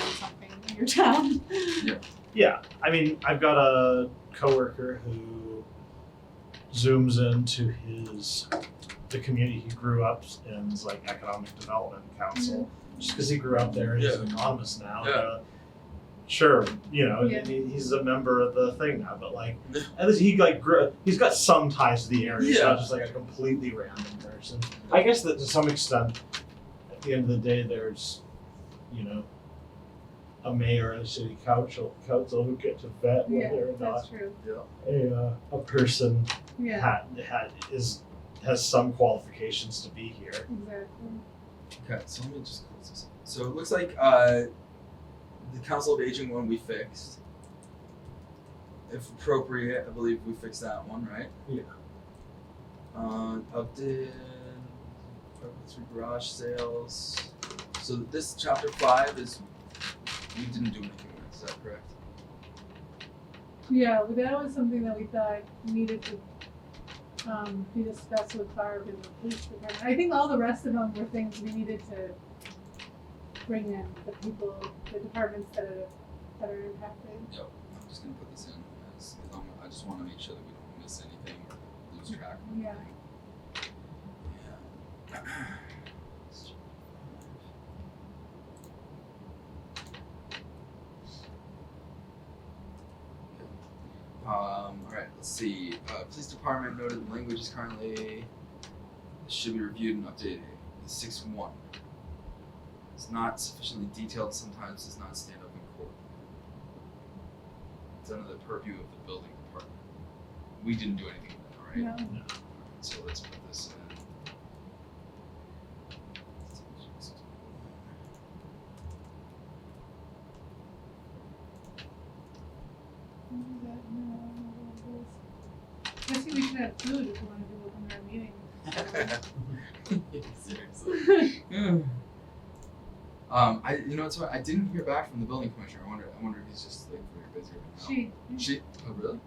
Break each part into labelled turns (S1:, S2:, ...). S1: something in your town.
S2: Yeah, I mean, I've got a coworker who zooms into his the community he grew up in's like economic development council just because he grew up there. He's an economist now.
S3: Yeah.
S2: uh, sure, you know,
S1: Yeah.
S2: he, he's a member of the thing now, but like
S3: Yeah.
S2: at least he like grew. He's got some ties to the area. He's
S3: Yeah.
S2: not just like a completely random person. I guess that to some extent, at the end of the day, there's, you know. A mayor and a city council, council who get to vet
S1: Yeah,
S2: whether or not
S1: That's true.
S2: a, uh, a person
S1: Yeah,
S2: had, had is has some qualifications to be here.
S1: exactly.
S3: Okay, so let me just close this. up. So it looks like uh, the Council of Aging one we fixed. If appropriate, I believe we fixed that one, right?
S2: Yeah.
S3: Uh, Upton, apartments for garage sales. So this chapter five is we didn't do anything with. it, Is that correct?
S1: Yeah, but that was something that we thought needed to um, be discussed with Barb and the police department. I think all the rest of them were things we needed to bring in, the people, the departments that are, that are impacted.
S3: Yep. I'm just gonna put this in as, as long I just want to make sure that we don't miss anything or lose track. of
S1: Yeah.
S3: anything. Yeah. Um, alright, let's see. Uh, police department noted the language is currently should be reviewed and updated. Six one. It's not sufficiently detailed, sometimes does not stand up in court. It's under the purview of the building department. We didn't do anything with that, right?
S1: No,
S3: So let's put this in.
S1: no, no, I think we should have food if we want to do open our meeting.
S3: Seriously. um, I you know what's funny? I didn't hear back from the building commissioner. I wonder I wonder if he's just like very busy right now.
S1: She,
S3: She. Oh really?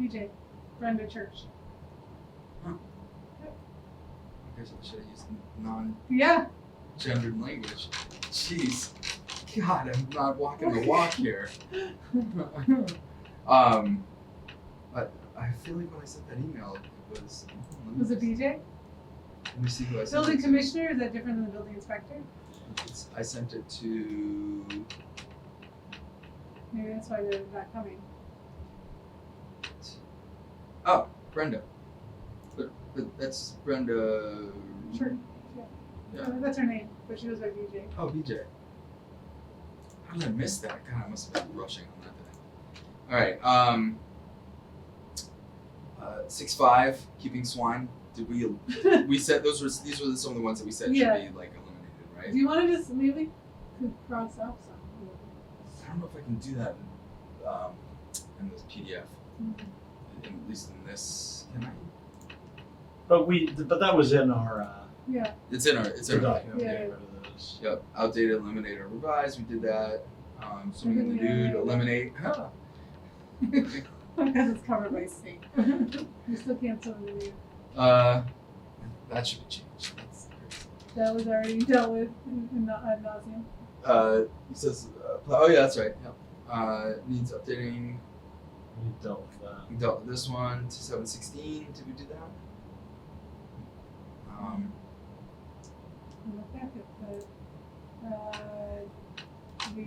S1: DJ, Brenda Church.
S3: I guess I should have used non-gendered
S1: Yeah,
S3: language. Jeez. God, I'm not walking the walk here. um, but I feel like when I sent that email, it was. hold on, let me
S1: was it
S3: just-
S1: DJ?
S3: Let me see who I sent
S1: Building
S3: it to.
S1: commissioner, is that different than the building inspector?
S3: It's, I sent it to.
S1: Maybe that's why they're not coming.
S3: Oh, Brenda. But, but that's Brenda.
S1: Sure.
S3: Yeah.
S1: Uh, That's her name, but she goes by DJ.
S3: Oh, BJ. How did I miss that? God, I must have been rushing on that day. All right. Um. Uh, six five, keeping swine. Did we?
S1: Do
S3: We said those were these were some of the ones that we said
S1: Yeah.
S3: should be like eliminated, right?
S1: you want to just maybe could cross off some?
S3: I don't know if I can do that. In, um, in this PDF,
S1: Mm-hmm.
S3: in, at least in this. Can I?
S2: But we but that was in our uh,
S1: Yeah,
S3: It's in our. It's
S2: our
S3: in our.
S2: document.
S1: Yeah.
S2: We got rid of those.
S3: Yep, outdated, eliminate, or revise. We did that. Um, swimming in the
S1: Eliminate.
S3: nude, eliminate.
S1: because it's covered by state. You still can't sort of do-
S3: uh, that should be changed. That's crazy.
S1: That was already dealt with in, in the ad nauseam.
S3: Uh, he says, uh, pla- oh yeah, that's right. Yep. Uh, needs updating.
S2: We dealt with that.
S3: We dealt with this one to seven sixteen. Did we do that? Um,
S1: And the fact that the, uh, we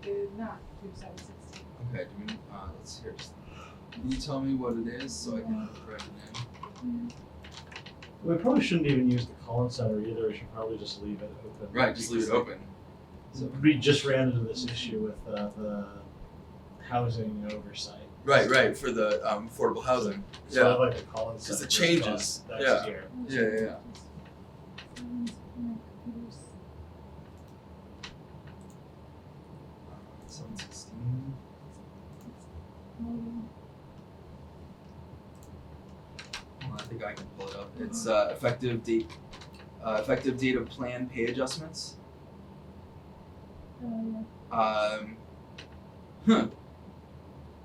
S1: did not do seven sixteen.
S3: okay. Do we? Uh, let's hear. Just, can you tell me what it is so I can correct it in?
S1: Mm-hmm.
S2: We probably shouldn't even use the Collins Center either. We should probably just leave it open.
S3: Right. Just leave it
S2: Because, like,
S3: open. So,
S2: We just ran into this issue with uh, the housing oversight.
S3: right. Right. For the um, affordable housing.
S2: So
S3: Yeah.
S2: I like the Collins
S3: Because
S2: Center.
S3: it
S2: we've got
S3: changes.
S2: Next
S3: Yeah.
S2: year.
S3: Yeah. Yeah. yeah. Seven sixteen. Well, I think I can pull it up. It's uh, effective date, uh, effective date of plan pay adjustments.
S1: Um,
S3: Um, huh.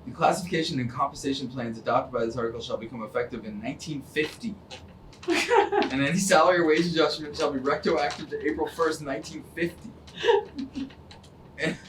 S3: The classification and compensation plans adopted by this article shall become effective in 1950, and any salary or wage adjustment shall be retroactive to April 1st, 1950.